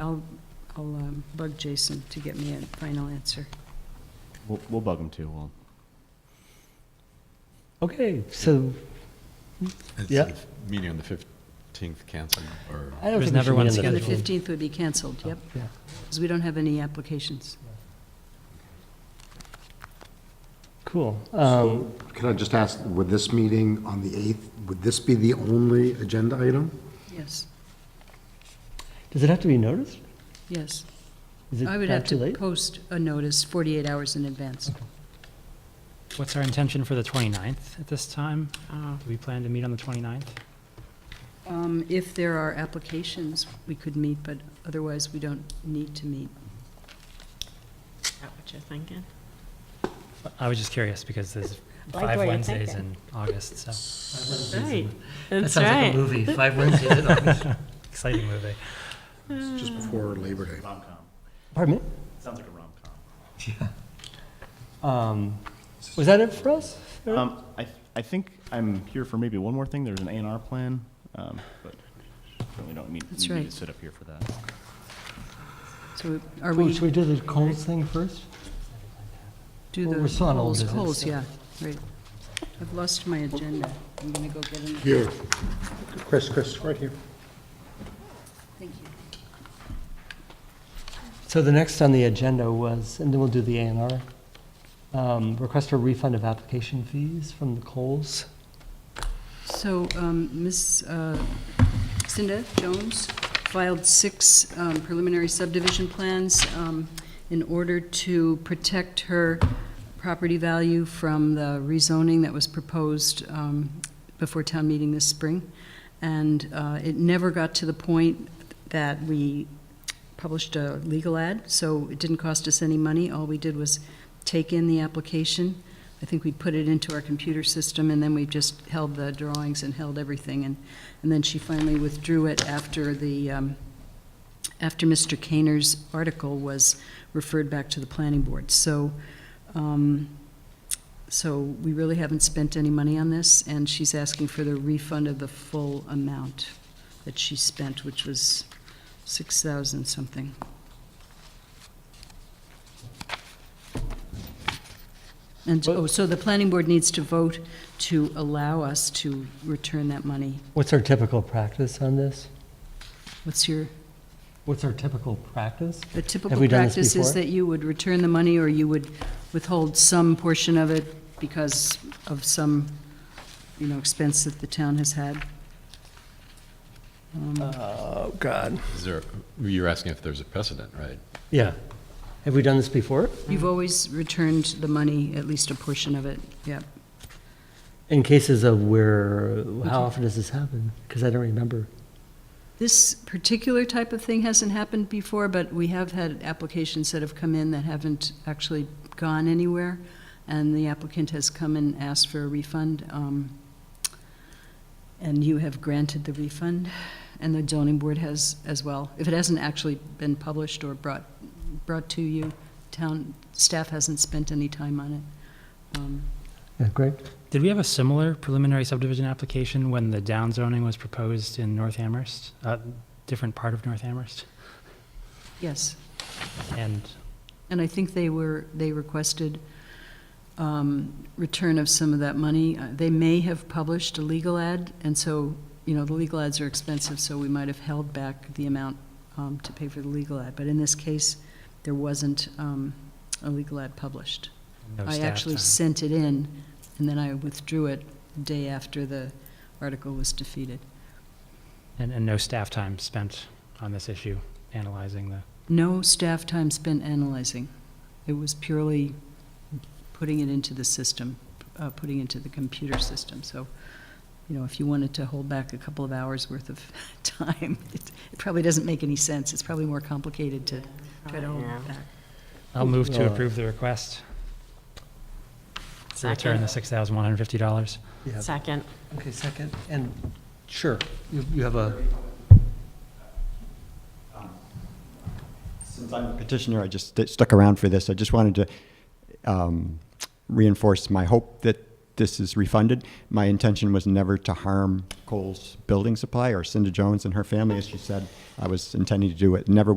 I'll, I'll um, bug Jason to get me a final answer. We'll, we'll bug them too. We'll, Okay, so Is Yeah. the Meeting on the 15th canceled, or, I don't think There's we never should one be on the Yeah, the scheduled. fifteenth. 15th would be canceled, yep, Yeah. because we don't have any applications. Cool. Um, Can I just ask, would this meeting on the 8th, would this be the only agenda item? Yes, Does it have to be noticed? yes. Is it I would not have too to late? post a notice 48 hours in advance. What's our intention for the 29th at this time? Oh, Do we plan to meet on the 29th? Um, If there are applications, we could meet, but otherwise, we don't need to meet. that what you're thinking? I was just curious because there's Like what five you're Wednesdays in thinking. August, so. Right, That that's sounds like a right. movie, Five Wednesdays in August. Exciting movie. It's just before Labor Day. Pardon me? Sounds like a rom-com. Um, Was that it for us? Eric? um, I, I think I'm here for maybe one more thing. There's an A and R plan, um, but certainly don't need, That's need me to right. sit up here for that. So are Cool, we, Should we do the Coles thing first? do well, the we're still on old polls, business. polls, yeah, right. I've lost my agenda. I'm going to go get it. Here, Chris, Chris, right here. Thank you. So the next on the agenda was, and then we'll do the A and R, request for refund of application fees from the Coles. So, um, Ms. uh, Cinda Jones filed six um, preliminary subdivision plans um, in order to protect her property value from the rezoning that was proposed um, before town meeting this spring. And uh, it never got to the point that we published a legal ad, so it didn't cost us any money. All we did was take in the application. I think we put it into our computer system, and then we just held the drawings and held everything. And, and then she finally withdrew it after the, um, after Mr. Kaner's article was referred back to the planning board. So, um, so we really haven't spent any money on this, and she's asking for the refund of the full amount that she spent, which was 6,000 something. And, oh, so the planning board needs to vote to allow us to return that money. What's our typical practice on this? What's your, What's our typical practice? the we typical done this practice is before? that you would return the money, or you would withhold some portion of it because of some, you know, expense that the town has had? Oh, God. is there, you're asking if there's a precedent, right? Yeah. Have we done this before? You've always returned the money, at least a portion of it, yeah. In cases of where, how often does this happen? Because I don't remember. This particular type of thing hasn't happened before, but we have had applications that have come in that haven't actually gone anywhere, and the applicant has come and asked for a refund, um, and you have granted the refund, and the zoning board has as well. If it hasn't actually been published or brought, brought to you, town, staff hasn't spent any time on it. Um, Yeah, great. Did we have a similar preliminary subdivision application when the downzoning was proposed in North Amherst? Uh, Different part of North Amherst? Yes. And And I think they were, they requested um, return of some of that money. Uh, They may have published a legal ad, and so, you know, the legal ads are expensive, so we might have held back the amount um, to pay for the legal ad. But in this case, there wasn't um, a legal ad published. no I staff actually time. sent it in, and then I withdrew it the day after the article was defeated. And, and no staff time spent on this issue, analyzing the, No staff time spent analyzing. It was purely putting it into the system, uh, putting into the computer system. So, you know, if you wanted to hold back a couple of hours worth of time, it it probably doesn't make any sense. It's probably more complicated to try to hold Yeah. it back. I'll move to Alright. approve the request. To return the $6,150. Yeah. Second. Okay, second, and sure, you you have a, Since I'm a petitioner, I just st- stuck around for this. I just wanted to um, reinforce my hope that this is refunded. My intention was never to harm Cole's building supply or Cinda Jones and her family, as she said. I was intending to do it, never